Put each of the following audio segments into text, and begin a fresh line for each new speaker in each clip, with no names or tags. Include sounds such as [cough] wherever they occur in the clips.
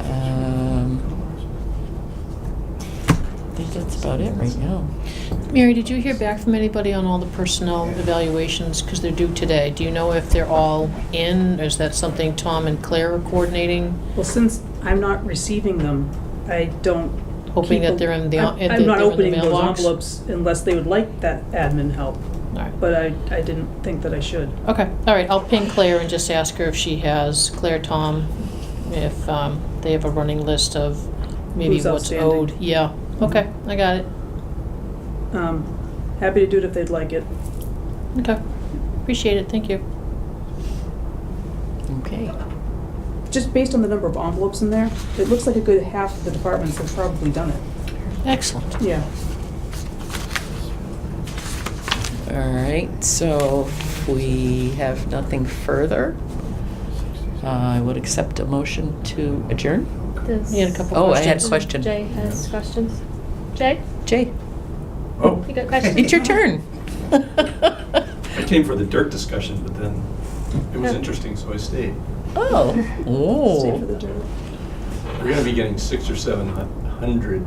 Um, about it right now.
Mary, did you hear back from anybody on all the personnel evaluations? Because they're due today. Do you know if they're all in? Or is that something Tom and Claire are coordinating?
Well, since I'm not receiving them, I don't.
Hoping
keep
that they're in the-
I'm-
that
I'm not
they're in the
opening those
mailbox?
envelopes unless they would like that admin help,
All right.
but I, I didn't think that I should.
Okay, all right, I'll ping Claire and just ask her if she has, Claire, Tom, if um, they have a running list of maybe
Who's
what's
outstanding.
owed. Yeah, okay, I got it.
Um, Happy to do it if they'd like it.
Okay, appreciate it, thank you.
Okay.
Just based on the number of envelopes in there, it looks like a good half of the departments have probably done it.
Excellent.
Yeah.
All right, so if we have nothing further, uh, I would accept a motion to adjourn.
Does-
You had a couple
Oh, I had a
questions.
question.
Jay has questions. Jay,
Jay,
Oh.
you got questions?
it's your turn. [laughs]
I came for the dirt discussion, but then it was
Yeah.
interesting, so I stayed.
Oh,
Stay for
oh.
the dirt.
We're gonna be getting six or seven hu- hundred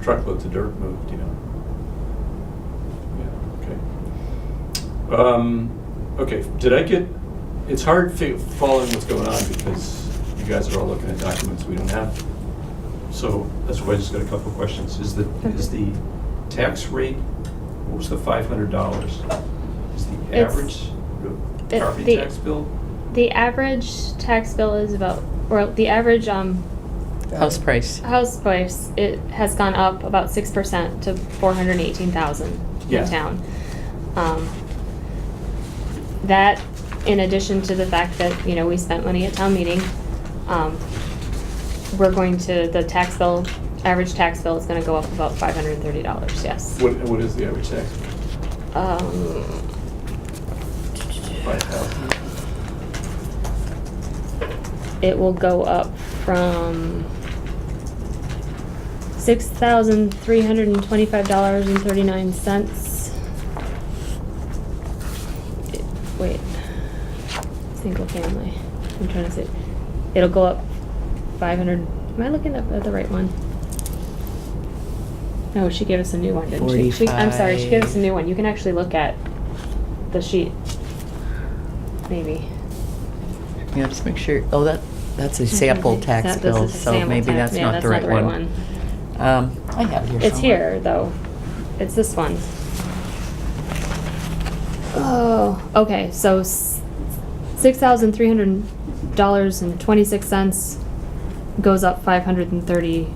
truckloads of dirt moved, you know? Yeah, okay. Um, okay, did I get, it's hard fi- following what's going on because you guys are all looking at documents we don't have. So that's why I just got a couple of questions. Is the, is the tax rate, what was the five hundred dollars? Is the
It's-
average
the-
property
the-
tax bill?
The average tax bill is about, or the average um,
House price.
house price, it has gone up about six percent to four hundred and eighteen thousand
Yeah.
in town. Um, That, in addition to the fact that, you know, we spent money at town meeting, um, we're going to, the tax bill, average tax bill is gonna go up about five hundred and thirty dollars, yes.
What, what is the average tax?
Um,
Five thousand?
it will go up from six thousand three hundred and twenty-five dollars and thirty-nine cents. Wait, single family, I'm trying to say, it'll go up five hundred, am I looking up at the right one? No, she gave us a new one, didn't she? She- I'm sorry, she gave us a new one, you can actually look at the sheet, maybe.
Yeah, just make sure, oh, that, that's a sample tax
Mhm. That- this is
bill,
a
so
sample
maybe
tax-
that's
yeah,
not the right one. Um, I have it here
It's
somewhere.
here, though. It's this one. Oh, okay, so six thousand three hundred dollars and twenty-six cents goes up five hundred and thirty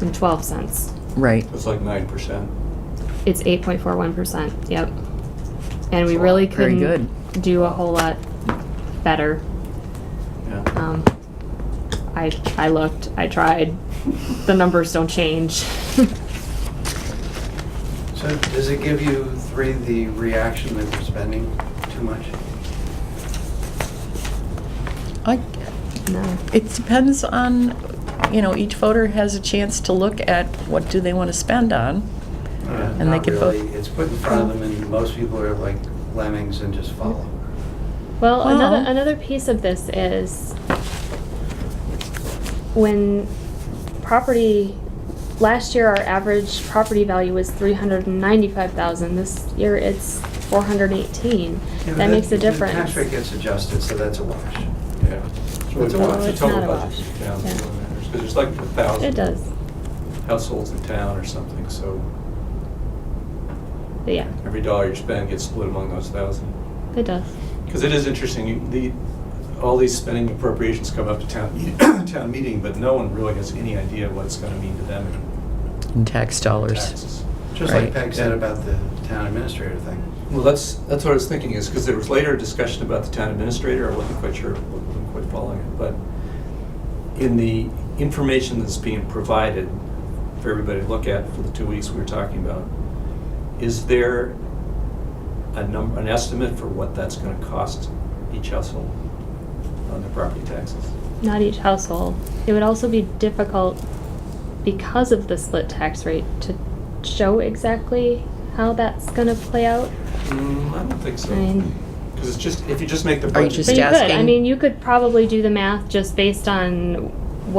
and twelve cents.
Right.
It's like nine percent.
It's eight point four one percent, yep. And we
Wow,
really
very
couldn't do a whole lot better.
Yeah.
Um, I, I looked, I tried, the numbers don't change. [laughs]
So does it give you three the reaction that we're spending too much?
I,
No.
It depends on, you know, each voter has a chance to look at what do they want to spend on.
Uh,
And they
not
could vote-
really. It's put in front of them and most people are like lemmings and just follow.
Well,
Well-
another another piece of this is when property last year our average property value was 395,000. This year it's 418.
Yeah, but
that makes a
The
difference.
tax rate gets adjusted, so that's a wash.
Yeah. It's really
It's a
tough.
wash.
The
It's
total
not a
budget
wash.
for towns
Yeah.
is what matters, 'cause there's like a
It
thousand
does.
households in town or something, so
But yeah,
every dollar you spend gets split among those thousand.
it does.
Because it is interesting, you- the, all these spending appropriations come up to town, [coughs] town meeting, but no one really has any idea what it's gonna mean to them in
In tax dollars.
taxes.
Just like
Right.
Peg said about the town administrator thing.
Well, that's, that's what I was thinking, is because there was later a discussion about the town administrator, I wasn't quite sure, wasn't quite following it, but in the information that's being provided for everybody to look at for the two weeks we were talking about, is there a number, an estimate for what that's gonna cost each household on their property taxes?
Not each household. It would also be difficult because of the split tax rate to show exactly how that's going to play out.
Mm, I don't think
I mean,
so, because it's just, if you just make the
Are you
budget.
just
But you could. I
asking-
mean, you could probably do the math just based on